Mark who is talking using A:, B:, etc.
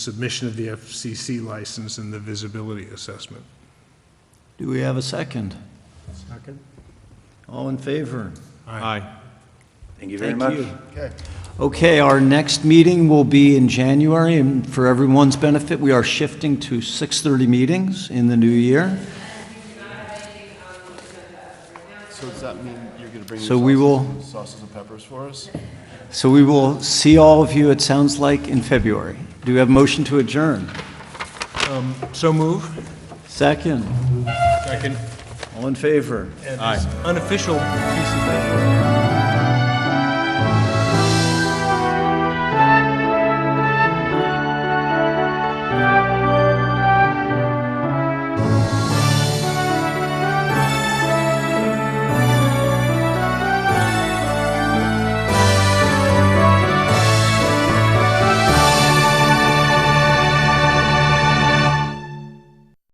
A: submission of the FCC license and the visibility assessment.
B: Do we have a second?
A: Second.
B: All in favor?
A: Aye.
C: Thank you very much.
B: Okay, our next meeting will be in January, and for everyone's benefit, we are shifting to 6:30 meetings in the new year.
D: So does that mean you're gonna bring?
B: So
D: your
B: we
D: sauces- Sauces and peppers for us?
B: So we will see all of you, it sounds like, in February. Do we have a motion to adjourn?
A: So move.
B: Second?
A: Second.
B: All in favor?
A: Aye. Unofficial piece of.